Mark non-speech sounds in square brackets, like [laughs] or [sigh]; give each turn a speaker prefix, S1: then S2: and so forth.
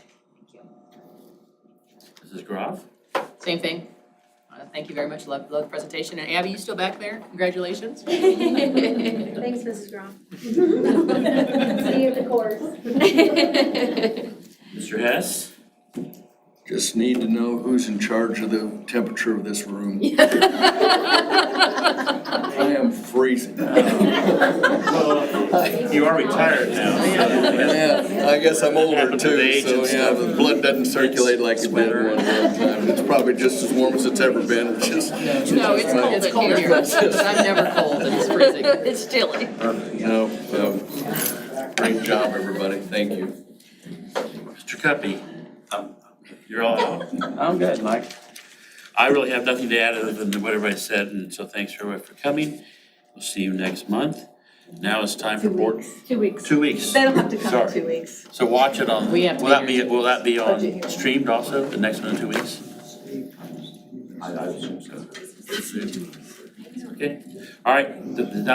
S1: Mrs. Groff?
S2: Same thing. Uh, Thank you very much, love, love the presentation. And Abby, you still back there? Congratulations.
S3: Thanks,
S4: [laughs]
S3: Mrs. Grom. See you at the course.
S1: Mr. Hess?
S5: Just need to know who's in charge of the temperature of this room. I am [laughs] freezing.
S1: Well, you are retired now,
S5: Yeah, I guess I'm older
S1: Happened to the
S5: too,
S1: age
S5: so
S1: and
S5: yeah,
S1: stuff.
S5: the blood doesn't circulate like it did
S1: Sweater.
S5: one one time. It's probably just as warm as it's ever been, it's just.
S2: No, it's cold
S3: It's
S2: in here. I'm never cold and it's freezing.
S3: It's chilly.
S5: [laughs] No, um, great job, everybody, thank you.
S1: so. Mr. Cuppy? Um, You're all out.
S6: I'm good, Mike.
S1: I really have nothing to add other than what everybody said, and so thanks everybody for coming. We'll see you next month. Now it's time for board,
S4: Two weeks.
S1: two weeks.
S4: They don't have to come in
S1: Sorry.
S4: two weeks.
S1: So watch it on,
S2: We have to
S1: will that
S2: be
S1: be, will that be
S4: Budget
S1: on
S4: hearing.
S1: streamed also, the next one in two weeks? Okay, all right, th- th-